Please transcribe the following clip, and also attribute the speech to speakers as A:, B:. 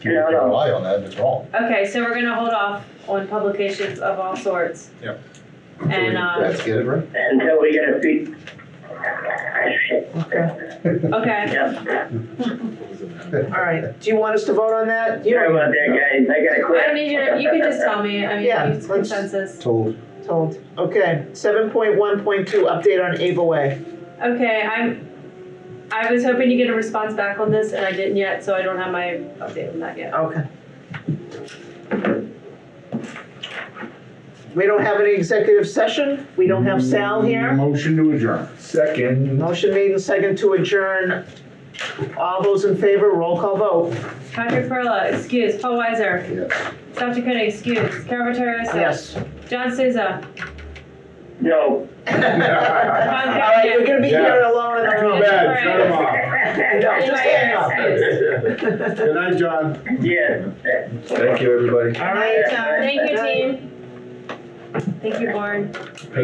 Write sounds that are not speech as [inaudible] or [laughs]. A: You can
B: No, no.
A: rely on that, it's wrong.
C: Okay, so we're gonna hold off on publications of all sorts.
A: Yep.
C: And,
D: uh,
C: um,
A: Let's get it right.
B: until we get a fee.
E: [laughs]
C: okay,
B: Yep,
D: All right, do you want us to vote on that? You
B: sorry
D: don't
B: about that, guys, I gotta
C: I
B: quit.
C: don't need you, to- you can
B: [laughs]
C: just tell me, I mean,
D: Yeah,
C: it's
D: let's-
C: consensus.
A: Told.
D: told. Okay, seven point one point two, update on Ava Way.
C: Okay, I'm, I was hoping to get a response back on this and I didn't yet, so I don't have my update on that yet.
D: Okay. We don't have any executive session, we don't have Sal here.
E: Motion to adjourn.
A: [laughs] Second.
D: Motion made and second to adjourn. All those in favor, roll call vote.
C: Patrick Perla, excuse, Paul Weiser,
A: Yes.
C: South Dakota, excuse, Carol Vittorioso.
D: Yes.
C: John Souza,
B: No.
D: All
C: Tom
D: right, you're
C: Callahan.
D: gonna be here alone in the
E: Too
D: room.
E: bad, shut him
A: [laughs]
E: off.
D: No, just hang up.
C: Excuse.
E: Good night, John.
B: Yes.
A: Thank you, everybody.
D: All right.
C: Thank you, team. Thank you, Lauren.